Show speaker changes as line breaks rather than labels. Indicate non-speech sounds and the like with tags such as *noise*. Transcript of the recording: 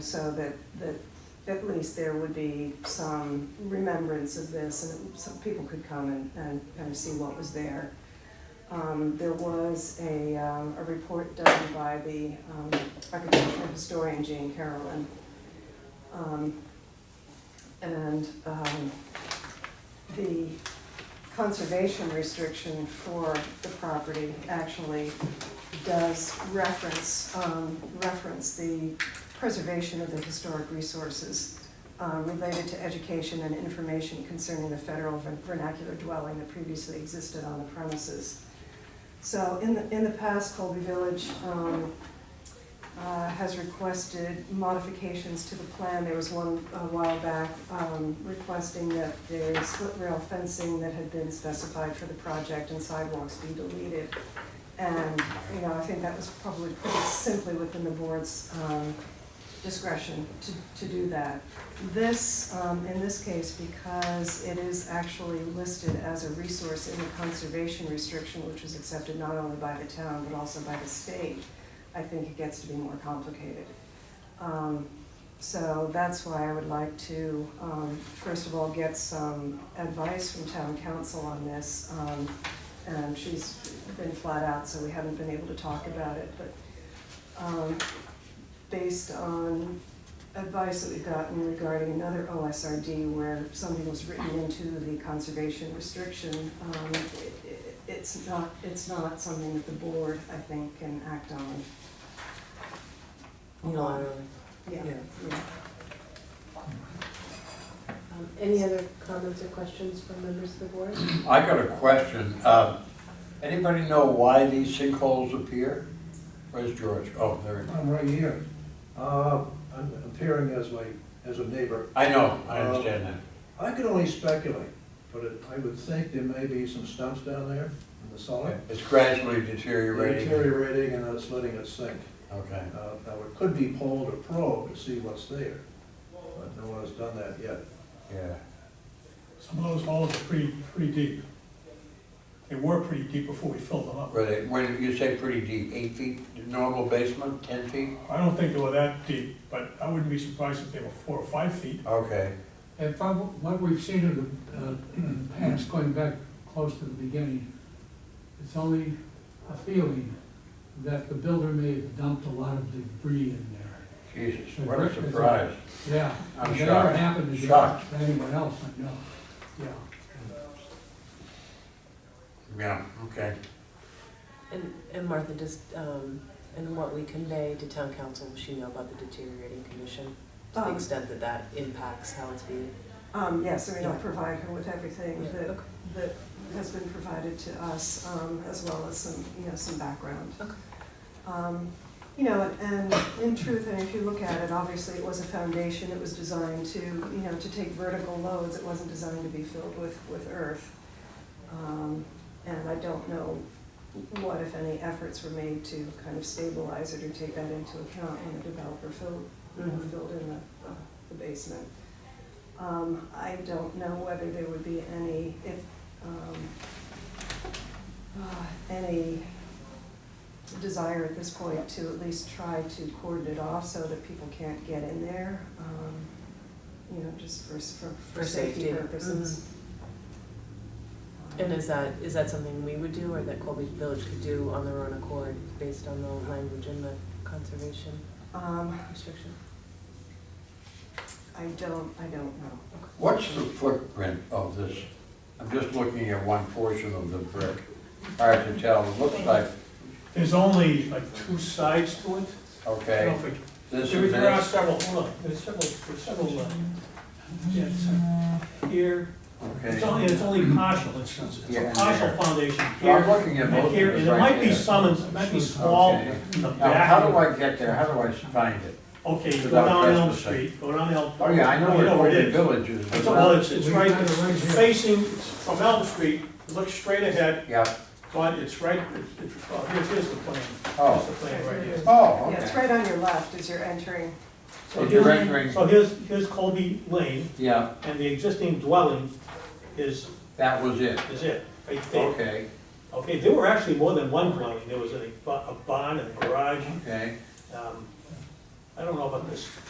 So that, that at least there would be some remembrance of this and some people could come and, and kind of see what was there. Um, there was a, um, a report done by the, um, architectural historian Jane Carolyn. Um, and, um, the conservation restriction for the property actually does reference, um, reference the preservation of the historic resources uh, related to education and information concerning the federal vern- vernacular dwelling that previously existed on the premises. So in the, in the past, Colby Village um, uh, has requested modifications to the plan. There was one a while back um, requesting that the split rail fencing that had been specified for the project and sidewalks be deleted. And, you know, I think that was probably pretty simply within the board's um, discretion to, to do that. This, um, in this case, because it is actually listed as a resource in the conservation restriction, which was accepted not only by the town, but also by the state, I think it gets to be more complicated. Um, so that's why I would like to, um, first of all, get some advice from town council on this. Um, and she's been flat out, so we haven't been able to talk about it, but, um, based on advice that we've gotten regarding another OSRD where something was written into the conservation restriction, um, it- it- it's not, it's not something that the board, I think, can act on.
No,
Yeah,
yeah.
yeah.
Um, Any other comments or questions from members of the board?
I got a question. Um, Anybody know why these sinkholes appear? Where's George? Oh, there he is.
I'm right here. Uh, I'm appearing as my, as a neighbor.
I know, I understand that.
I can only speculate, but it- I would think there may be some stumps down there in the
Okay.
solid.
It's gradually
They're
deteriorating.
Deteriorating and it's letting it sink.
Okay.
Uh, Now, it could be pulled or probed to see what's there, but no one has done that yet.
Yeah.
Some of those holes are pretty, pretty deep. They were pretty deep before we filled them up.
Were they, where did you say pretty deep, eight feet, the normal basement, ten feet?
I don't think they were that deep, but I wouldn't be surprised if they were four or five feet.
Okay,
And from what we've seen in the uh, *clears throat* in the past, going back close to the beginning, it's only a feeling that the builder may have dumped a lot of debris in there.
Jesus, what a surprise.
Yeah.
I'm
If that ever
shocked.
happened to
Shocked.
to anyone else, I know, yeah.
Yeah, okay.
And, and Martha, does, um, and what we convey to town council, will she know about the deteriorating condition? To the
Um,
extent that that impacts how it's viewed?
Um, yes, I mean, I'll
Yeah.
provide her with everything that,
Okay.
that has been provided to us, um, as well as some, you know, some background.
Okay.
Um, you know, and in truth, and if you look at it, obviously it was a foundation, it was designed to, you know, to take vertical loads, it wasn't designed to be filled with, with earth. Um, and I don't know what, if any, efforts were made to kind of stabilize it or take that into account when the developer filled, you know,
Mhm.
filled in the, uh, the basement. Um, I don't know whether there would be any, if, um, uh, any desire at this point to at least try to cordon it off so that people can't get in there, um, you know, just for, s- for, for
For
safety
safety. Mm-hmm.
purposes. Um,
And is that, is that something we would do or that Colby Village could do on their own accord based on the language in the conservation
Um,
restriction?
I don't, I don't know.
What's the footprint of this? I'm just looking at one portion of the brick. Hard to tell, it looks like,
There's only like two sides to it. I
okay,
don't think-
this
There
is
there are
this,
several, hold on, there's several, there's several, uh, yeah, it's, uh, here. It's
okay.
only, it's only partial, it's, it's
Yeah,
a
and
partial
there.
foundation
I'm
here.
looking at
And
both of
here,
these
and there
right
might be
there.
some, it might be small
Okay.
in the
Now,
back.
how do I get there? How do I find it?
Okay, go
Without
down Elm
trespassing.
Street, go down Elm.
Oh, yeah, I know
You
where
it
Golden
is.
Village is.
It's, well, it's, it's
We've
right,
got it right
it's
here.
facing from Elm Street, look straight ahead,
Yeah,
but it's right, it's- it's, oh, here's, here's the plan. Here's
oh,
the plan right here.
oh,
Yeah, it's
okay.
right on your left as you're entering.
So
It's
here's,
rendering,
so here's, here's Colby Lane,
yeah,
and the existing dwelling is,
that was it.
is it, right there.
Okay,
Okay, there were actually more than one dwelling, there was a, ba- a barn and a garage,
okay.
um, I don't know about this